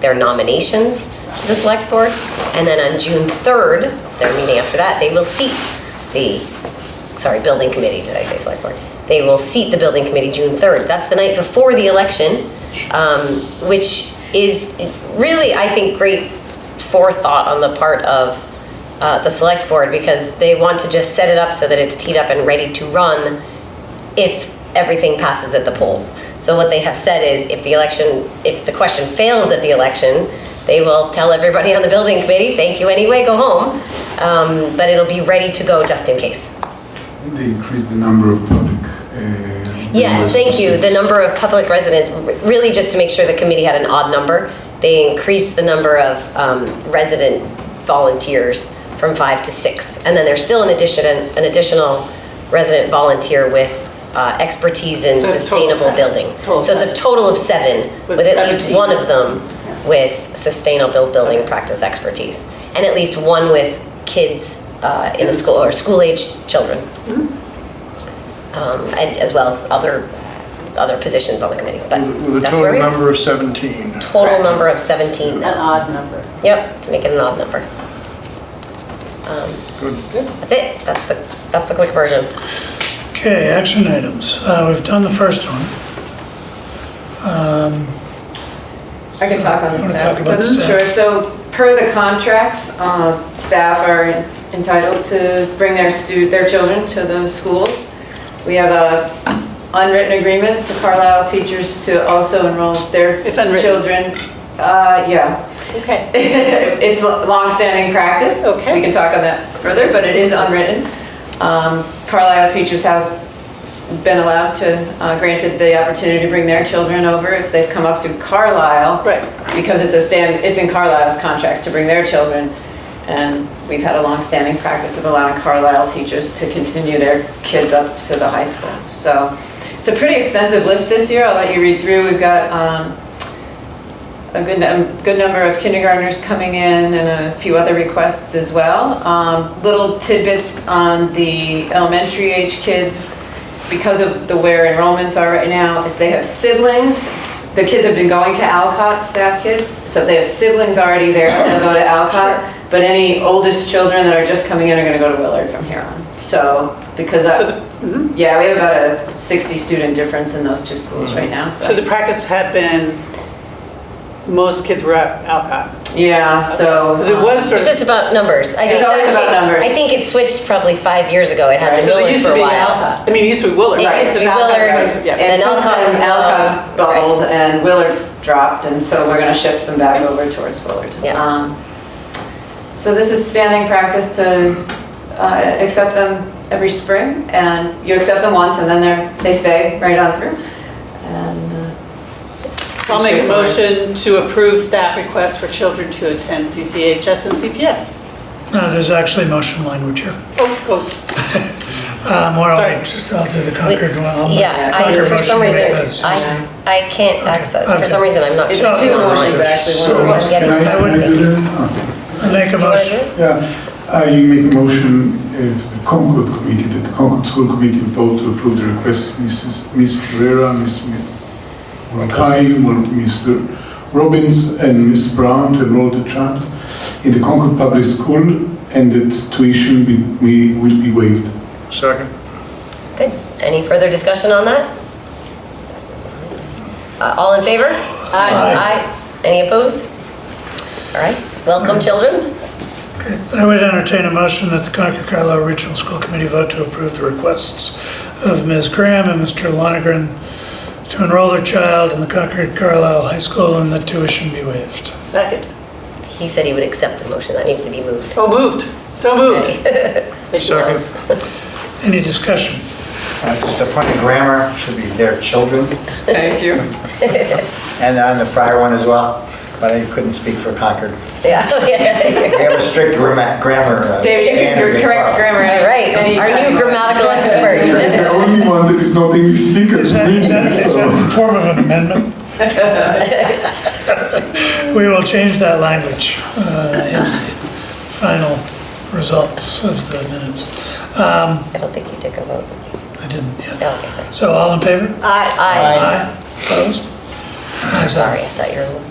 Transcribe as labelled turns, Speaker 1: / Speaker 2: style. Speaker 1: their nominations to the select board. And then on June 3rd, their meeting after that, they will seat the, sorry, building committee, did I say select board? They will seat the building committee June 3rd. That's the night before the election, um, which is really, I think, great forethought on the part of uh, the select board because they want to just set it up so that it's teed up and ready to run if everything passes at the polls. So what they have said is if the election, if the question fails at the election, they will tell everybody on the building committee, thank you anyway, go home. Um, But it'll be ready to go just in case.
Speaker 2: They increased the number of public. uh,
Speaker 1: Yes,
Speaker 2: members
Speaker 1: thank
Speaker 2: to
Speaker 1: you. The
Speaker 2: six.
Speaker 1: number of public residents, r- really just to make sure the committee had an odd number. They increased the number of um, resident volunteers from five to six. And then there's still an addition, an additional resident volunteer with uh, expertise in
Speaker 3: So total
Speaker 1: sustainable
Speaker 3: seven.
Speaker 1: building. So
Speaker 3: Total
Speaker 1: it's a
Speaker 3: seven.
Speaker 1: total of seven,
Speaker 3: With
Speaker 1: with at least
Speaker 3: 17.
Speaker 1: one of them
Speaker 3: Yeah.
Speaker 1: with sustainable building practice expertise. And at least one with kids uh, in the school, or school-age children um, and as well as other, other positions on the committee, but
Speaker 4: With a
Speaker 1: that's where
Speaker 4: total
Speaker 1: we are.
Speaker 4: number of 17.
Speaker 1: Total number of 17
Speaker 3: An
Speaker 1: now.
Speaker 3: odd number.
Speaker 1: Yep, to make it an odd number. Um,
Speaker 4: Good.
Speaker 1: That's it, that's the, that's the quick version.
Speaker 4: Okay, action items. Uh, We've done the first one. Um,
Speaker 5: I can talk on the
Speaker 4: You wanna
Speaker 5: staff.
Speaker 4: talk about
Speaker 5: because-
Speaker 4: staff?
Speaker 5: Mm-hmm. Sure, so per the contracts, uh, staff are entitled to bring their stu, their children to the schools. We have a unwritten agreement for Carlisle teachers to also enroll their
Speaker 3: It's unwritten.
Speaker 5: children. Uh, yeah.
Speaker 3: Okay.
Speaker 5: It's longstanding practice.
Speaker 3: Okay.
Speaker 5: We can talk on that further, but it is unwritten. Um, Carlisle teachers have been allowed to, uh, granted the opportunity to bring their children over if they've come up through Carlisle.
Speaker 3: Right.
Speaker 5: Because it's a stand, it's in Carlisle's contracts to bring their children. And we've had a longstanding practice of allowing Carlisle teachers to continue their kids up to the high school. So it's a pretty extensive list this year. I'll let you read through. We've got um, a good, num- good number of kindergartners coming in and a few other requests as well. Um, Little tidbit on the elementary age kids, because of the where enrollments are right now, if they have siblings, the kids have been going to Alcott, staff kids, so if they have siblings already there, they'll go to Alcott. But any oldest children that are just coming in are gonna go to Willard from here on. So, because, I-
Speaker 3: So the-
Speaker 5: yeah, we have about a 60 student difference in those two schools right now,
Speaker 3: Mm-hmm. So the practice had been, most kids were at Alcott.
Speaker 5: Yeah, so.
Speaker 3: Because it
Speaker 5: um,
Speaker 3: was sort
Speaker 1: It's
Speaker 3: of.
Speaker 1: just about numbers. I
Speaker 5: It's
Speaker 1: think
Speaker 5: always
Speaker 1: actually-
Speaker 5: about numbers.
Speaker 1: I think it switched probably five years ago, it had
Speaker 5: Right.
Speaker 1: been
Speaker 3: because it
Speaker 1: Willard
Speaker 3: used
Speaker 1: for
Speaker 3: to
Speaker 1: a
Speaker 3: be
Speaker 1: while.
Speaker 3: Alcott. I mean, it used to be Willard.
Speaker 1: It
Speaker 3: right.
Speaker 1: used to be
Speaker 3: Alcott,
Speaker 1: Willard.
Speaker 3: right, yeah.
Speaker 1: Then
Speaker 5: And since
Speaker 1: Alcott
Speaker 5: then,
Speaker 1: was
Speaker 5: Alcott's
Speaker 1: low. Right.
Speaker 5: bubbled and Willard's dropped, and so we're gonna shift them back over towards Willard.
Speaker 1: Yeah.
Speaker 5: Um, So this is standing practice to uh, accept them every spring, and you accept them once, and then they're, they stay right on through. And uh,
Speaker 3: I'll make a motion to approve staff requests for children to attend CCHS and CPS.
Speaker 4: No, there's actually motion language here.
Speaker 3: Oh, oh,
Speaker 4: Um, Why
Speaker 3: Sorry.
Speaker 4: don't we, I'll do the Concord one. I'll-
Speaker 1: Yeah, I,
Speaker 4: Concord
Speaker 1: for some
Speaker 4: motion
Speaker 1: reason,
Speaker 4: because-
Speaker 1: I, I can't access, for some
Speaker 4: okay.
Speaker 1: reason, I'm not.
Speaker 5: It's
Speaker 1: seeing
Speaker 5: two
Speaker 1: it online.
Speaker 5: motions, actually,
Speaker 2: So,
Speaker 5: one
Speaker 1: I'm
Speaker 2: can
Speaker 1: getting
Speaker 2: I,
Speaker 1: it.
Speaker 2: can I do that now?
Speaker 4: I Make a
Speaker 1: You wanna do
Speaker 4: motion.
Speaker 1: it?
Speaker 2: Yeah, Uh, you make a motion, uh, to the Concord Committee, that the Concord School Committee vote to approve the request of Mrs., Ms. Ferreira, Ms. Mackay, Mr. Robbins, and Ms. Brown to enroll the child in the Concord Public School, and that tuition will be- will be waived.
Speaker 4: Second.
Speaker 1: Good, any further discussion on that? Uh, All in favor? Aye. Aye. Any opposed? All right, welcome, children.
Speaker 4: I would entertain a motion that the Concord Carlisle Regional School Committee vote to approve the requests of Ms. Graham and Mr. Lonegren to enroll their child in the Concord Carlisle High School and that tuition be waived.
Speaker 3: second.
Speaker 1: He said he would accept a motion, that needs to be moved.
Speaker 3: Oh, moved. So moved. Thank you.
Speaker 4: Any discussion?
Speaker 6: Uh, Just a point of grammar, should be their children,
Speaker 5: Thank you.
Speaker 6: and on the prior one as well, but I couldn't speak for Concord.
Speaker 1: So, Yeah.
Speaker 6: We have a strict gramma- grammar uh, standard.
Speaker 5: Dave, you can
Speaker 6: in
Speaker 5: correct
Speaker 6: Colorado.
Speaker 5: grammar.
Speaker 1: All right, our
Speaker 5: anytime.
Speaker 1: new grammatical expert.
Speaker 2: The only one that is not English speaker
Speaker 4: Is
Speaker 2: is
Speaker 4: that, is
Speaker 2: me,
Speaker 4: that- is that
Speaker 2: so.
Speaker 4: in form of an amendment? We will change that language uh, in the final results of the minutes.
Speaker 1: I don't think you took a vote.
Speaker 4: I didn't yet.
Speaker 1: Oh, okay, sorry.
Speaker 4: So all in favor?
Speaker 3: Aye.
Speaker 1: Aye.
Speaker 4: Opposed? Ayes have
Speaker 1: Sorry,
Speaker 4: it.
Speaker 1: I thought you were.